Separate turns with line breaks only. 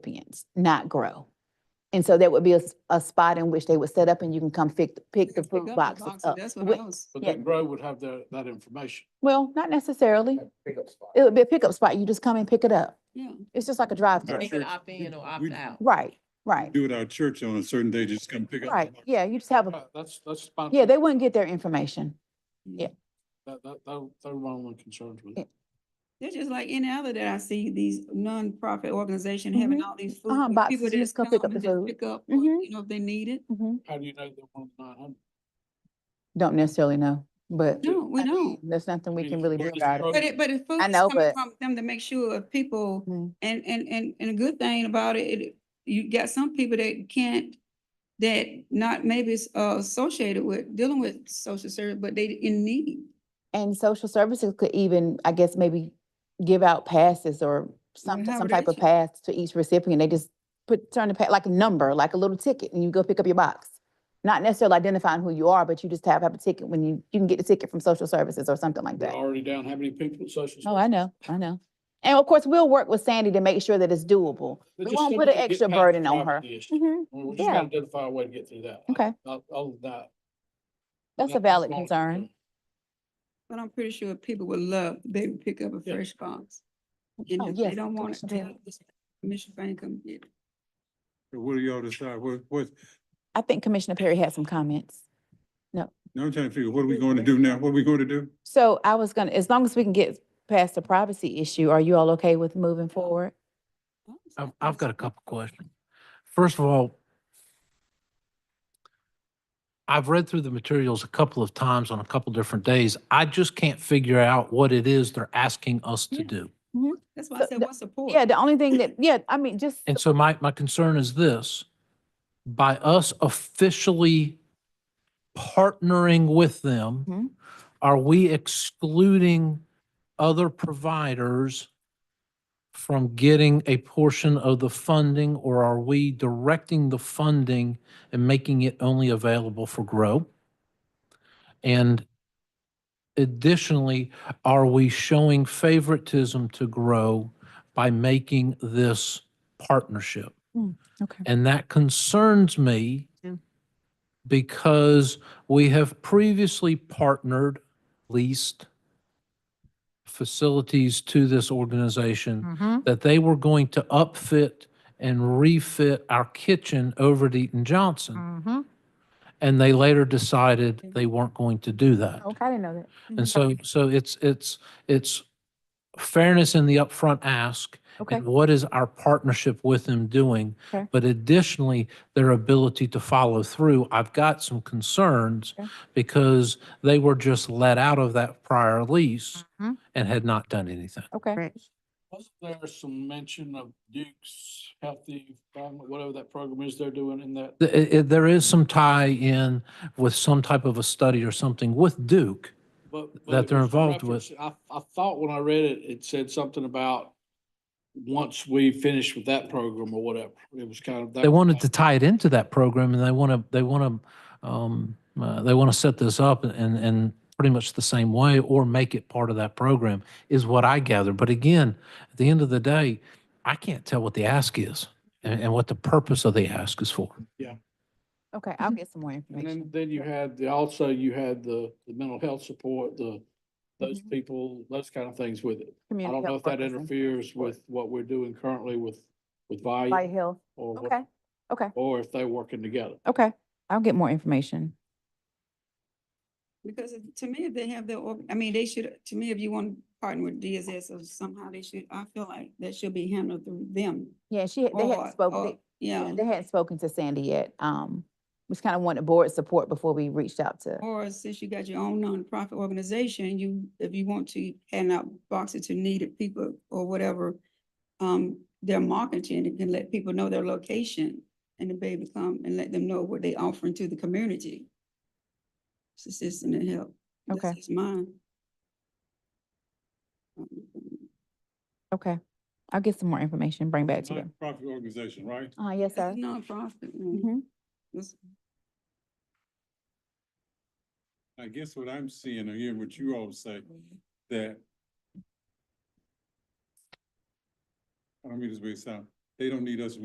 recipients, not grow. And so that would be a, s- a spot in which they would set up and you can come pick, pick the
Pick up
fruit boxes up.
That's
Wh-
what I was.
But
Yeah.
then Grove would have their, that information.
Well, not necessarily.
Pickup spot.
It would be a pickup spot. You just come and pick it up.
Yeah.
It's just like a drive-through.
Right.
Make it
sure.
opt in or opt
We-
out.
Right, right,
do it our church on a certain day, just come pick up.
right. Yeah, you just have a,
Yeah, That's, that's. fine.
yeah, they wouldn't get their information. yeah.
That, that, that, that one of my concerns with
Yeah.
it.
It's just like any other that I see these nonprofit organizations having all these food.
Uh-huh,
with
boxes,
people
you just
that's
come pick
come
up the
and
food.
just Pick up, what,
Mhm.
you know, if they need it.
Mhm.
How do you know they're one of the nine hundred?
Don't necessarily know, but
No, we
I mean,
don't.
There's nothing we
mean,
can really do
what is
about
the
it.
But it, but if food
I
is
know,
coming
but-
from them to make sure if people,
Mhm.
and, and, and, and a good thing about it, it, you got some people that can't, that not maybe it's uh, associated with, dealing with social service, but they in need.
And social services could even, I guess, maybe give out passes or some, some type of
accommodation.
pass to each recipient. They just put, turn the, pa- like a number, like a little ticket, and you go pick up your box. Not necessarily identifying who you are, but you just have, have a ticket when you, you can get a ticket from social services or something like
We're
that.
already down how many people in social?
Oh, I know, I know. And of course, we'll work with Sandy to make sure that it's doable. We
But just
won't
some
put an
way to get
extra
past the
burden on her.
poverty issue.
Mhm.
We we just
yeah.
gotta identify a way to get through that.
Okay,
I'll, I'll, that.
that's a
that's
valid
all I can
concern.
say.
But I'm pretty sure people would love, they would pick up a
Yeah.
fresh box. And
Oh,
if
yes,
they don't want it,
Commissioner Bell.
tell this um, Commissioner Bank come get it.
So What do y'all decide? What, what,
I think Commissioner Perry had some comments.
now I'm trying to figure, what are we going to do now? What are we going to do?
So I was gonna, as long as we can get past the privacy issue, are you all okay with moving forward?
I've, I've got a couple questions. First of all, I've read through the materials a couple of times on a couple different days. I just can't figure out what it is they're asking us to
Yeah.
do.
That's why I
So
said,
the-
what's support?
Yeah, the only thing that, yeah, I mean, just,
And so my, my concern is this, by us officially partnering with
Mhm.
them, are we excluding other providers from getting a portion of the funding, or are we directing the funding and making it only available for grow? And additionally, are we showing favoritism to grow by making this partnership.
Hmm, okay.
And that concerns me
Yeah.
because we have previously partnered, leased facilities to this
Hmm.
organization
Mm-hmm.
that they were going to upfit and refit our kitchen over at Eaton
Hmm.
Johnson. And they later decided they weren't going to do that.
Okay, I didn't know that. Mm-hmm.
And so, so it's, it's, it's fairness in the upfront ask
Okay,
and what is our partnership with them doing?
Okay.
But additionally, their ability to follow through. I've got some concerns
Okay.
because they were just let out of that prior lease
Mhm.
and had not done anything.
okay.
Wasn't there some mention of Duke's Healthy Family, whatever that program is they're doing in that?
Th- it- it- There is some tie-in with some type of a study or something with Duke.
but- but
that
it
they're
was
involved with.
referenced- I, I thought when I read it, it said something about once we finish with that program or whatever, it was kind of. that
They
was
wanted
my-
to tie it into that program and they want to, they want to, um, uh, they want to set this up and, and pretty much the same way or make it part of that program is what I gather. But again, at the end of the day, I can't tell what the ask is and, and what the purpose of the ask is for.
Okay, I'll get some more
And
information.
then, then you had the, also you had the, the mental health support, the, those
Mhm.
people, those kind of things with it. I
Community
don't know
health
if that
workers and
interferes
support.
with what we're doing currently with, with Via
Light health,
or, what-
okay, okay,
or if they're working together.
okay. I'll get more information.
Because it- to me, if they have their, org- I mean, they should, to me, if you want to partner with DSS or somehow they should, I feel like that should be handled through them.
Yeah, she, had- they hadn't
or-
spoken,
uh,
or-
they- yeah,
Yeah,
they hadn't spoken to Sandy yet. Um, we just kind of wanted board support before we reached out to.
or since you got your own nonprofit organization, you, if you want to hand out boxes to needed people or whatever, um, their marketing, it can let people know their location and the baby come and let them know what they offering to the community. Assistance and help. That's
Okay.
just mine.
Okay, I'll get some more information, bring back to you.
Nonprofit organization, right?
Uh, yes,
It's a
sir.
nonprofit. mm.
Mhm.
That's-
I guess what I'm seeing or hearing what you all say, that I don't mean this way to sound, they don't need us